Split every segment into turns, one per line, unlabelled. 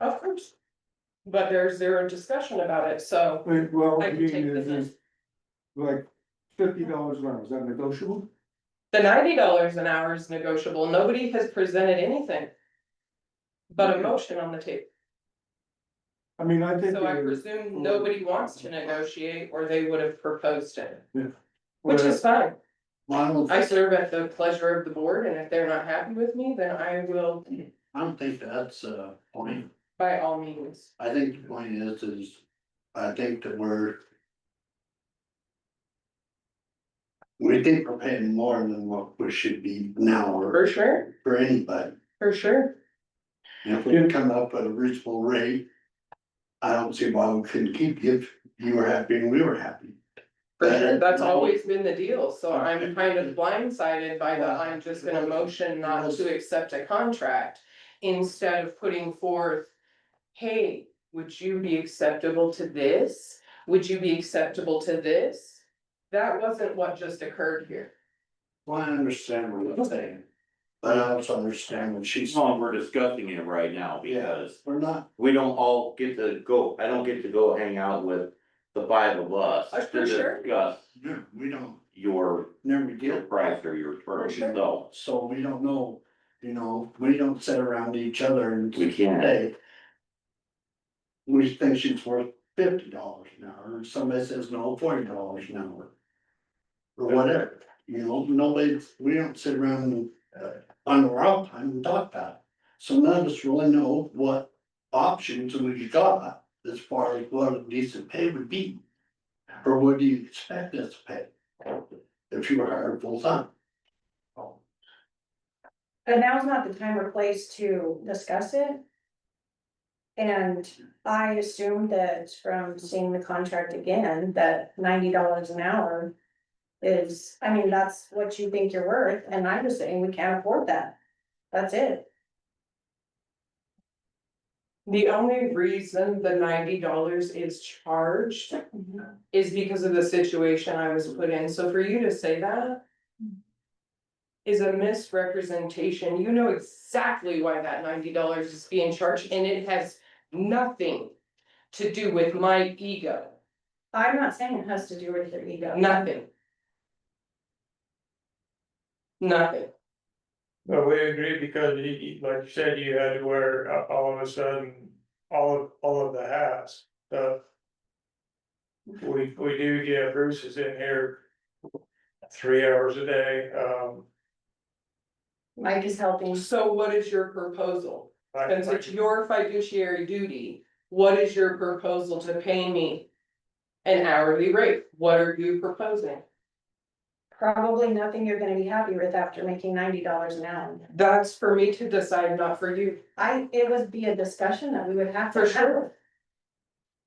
Of course. But there's zero discussion about it, so
But, well,
I
I
can
mean,
take the
is is like fifty dollars an hour, is that negotiable?
the ninety dollars an hour is negotiable. Nobody has presented anything. But a motion on the table,
I mean, I think.
so I
it is,
presume nobody wants to negotiate or they would have proposed it, which
where-
is fine.
Well, I
I
don't,
serve at the pleasure of the board and if they're not happy with me, then I will
I don't think that's a point.
by all means.
I think the point is, is I think that we're. We think we're paying more than what we should be now or
For sure,
for anybody.
for sure.
And If we come up with a reasonable rate. I don't see why we couldn't keep you if you were happy and we were happy.
For
Uh,
sure, that's
no.
always been the deal, so I'm kind of blindsided by the, I'm just gonna motion not to accept a contract. Instead of putting forth, hey, would you be acceptable to this? Would you be acceptable to this? That wasn't what just occurred here.
Well, I understand what you're saying. But I also understand what she's,
It's not, we're discussing it right now because
we're not,
we don't all get to go, I don't get to go hang out with the five of us
Uh,
to
for sure.
discuss
no, we don't,
your
never
your
get
price or your terms,
sure.
so
So we don't know, you know, we don't sit around each other and
we can't.
say. We think she's worth fifty dollars an hour, and somebody says no, forty dollars an hour. Or whatever, you know, nobody, we don't sit around uh, on our off time and talk about it. So none of us really know what options we got as far as what a decent pay would be. Or what do you expect us to pay? If you were hired full time. Oh,
But now's not the time or place to discuss it. And I assume that from seeing the contract again, that ninety dollars an hour. Is, I mean, that's what you think you're worth, and I'm just saying we can't afford that. That's it.
The only reason the ninety dollars is charged is because of the situation I was put in, so for you to say that. Is a misrepresentation, you know exactly why that ninety dollars is being charged, and it has nothing. To do with my ego,
I'm not saying it has to do with your ego.
nothing. Nothing,
But we agree because you, you- like you said, you had to wear uh, all of a sudden, all of, all of the hats, the. We, we do get Bruce is in here. Three hours a day, um.
Mike is helping.
so what is your proposal?
like-
Since it's your fiduciary duty, what is your proposal to pay me? An hourly rate, what are you proposing?
Probably nothing you're gonna be happy with after making ninety dollars an hour.
That's for me to decide, not for you.
I, it would be a discussion that we would have
For
to have.
sure.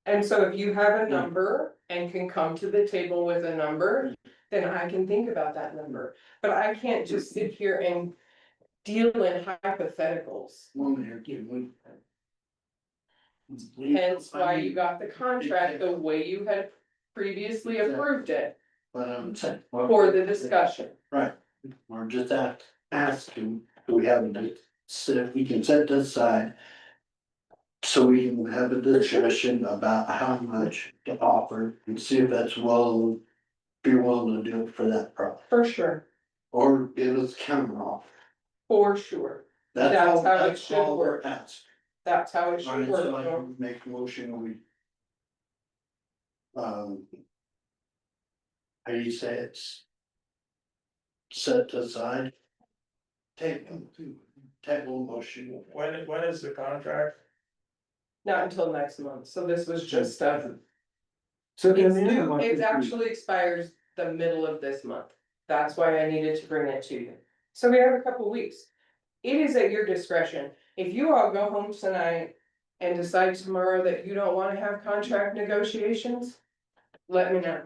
And so if you have a number and can come to the table with a number, then I can think about that number. But I can't just sit here and deal in hypotheticals.
Woman here, give me.
Hence why you got the contract the way you had previously approved it
But I'm saying.
for the discussion.
We're just ask, asking, do we have a, so if we can set this aside. So we can have a discussion about how much to offer and see if that's well, be willing to do it for that price,
For sure.
or give us counter offer.
For sure.
That's all,
That's how it
that's
should
all we're
work.
asking.
That's how it should
Alright, so
work.
I
no?
can make a motion, we. Um. How do you say it's? Set aside. Table, table motion.
When, when is the contract?
Not until next month. So this was just a
So then
It's
the other
due,
one
it
is-
actually expires the middle of this month, that's why I needed to bring it to you, so we have a couple weeks. It is at your discretion, if you all go home tonight and decide tomorrow that you don't wanna have contract negotiations, let me know.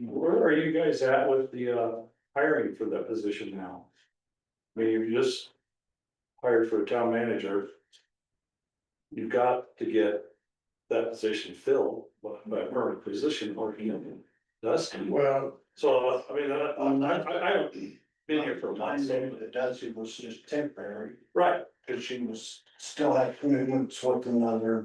Where are you guys at with the uh hiring for that position now? I mean, you just hired for a town manager. You've got to get that position filled by by a permanent position or you know, that's,
Well,
so, I mean, I
On
I I I haven't been here for a month, so-
It does, it was just temporary,
right,
Cause she was, still had commitments with another